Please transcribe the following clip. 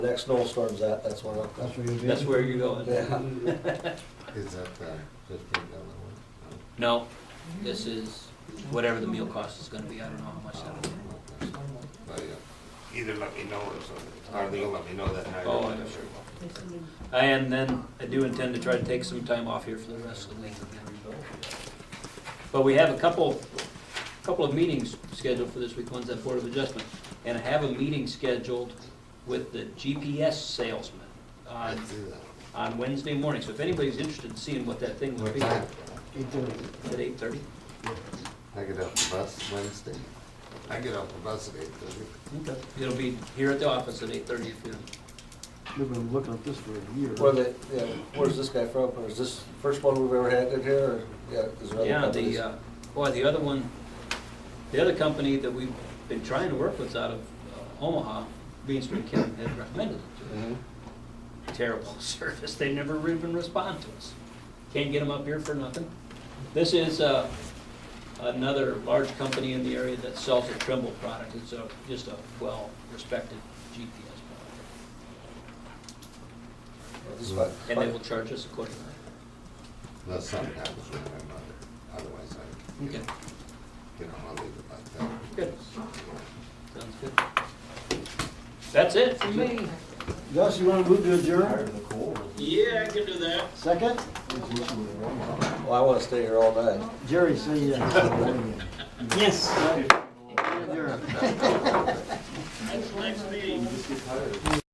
next snowstorm's at, that's where, I'm- That's where you'll be? That's where you're going. yeah. Is that the fifteen dollar one? No. No, this is whatever the meal cost is gonna be, I don't know how much that'll be. Um, Okay. But, yeah. Either let me know or something, Arlene will let me know that night. Oh, I'm sure. And then I do intend to try to take some time off here for the rest of the week. But we have a couple, couple of meetings scheduled for this week, one's at Board of Adjustment. And I have a meeting scheduled with the GPS salesman I on, do that. on Wednesday morning. So if anybody's interested in seeing what that thing would What be, time? at eight thirty? I get off the bus Wednesday. I get off the bus at eight thirty. Okay. It'll be here at the office at eight thirty if you, We've been looking at this for a year. Where the, yeah, where's this guy from, or is this the first one we've ever had in here, or, yeah, is there other yeah, companies? the, uh, boy, the other one, the other company that we've been trying to work with's out of uh, Omaha, Bean Street County, had recommended it. Mhm. Terrible service, they never even respond to us. Can't get them up here for nothing. This is, uh, another large company in the area that sells a Trimble product, it's a, just a well-respected GPS product. Well, this is fine. And they will charge us accordingly. Unless something happens with my mother. Otherwise, I, Okay, you know, I'll leave it like that. good, sounds good. That's it for me. Gus, you wanna move to adjourn? Yeah, I can do that. Second? Well, I wanna stay here all night. Jerry, say yes. Yes. Adjourn. Next meeting.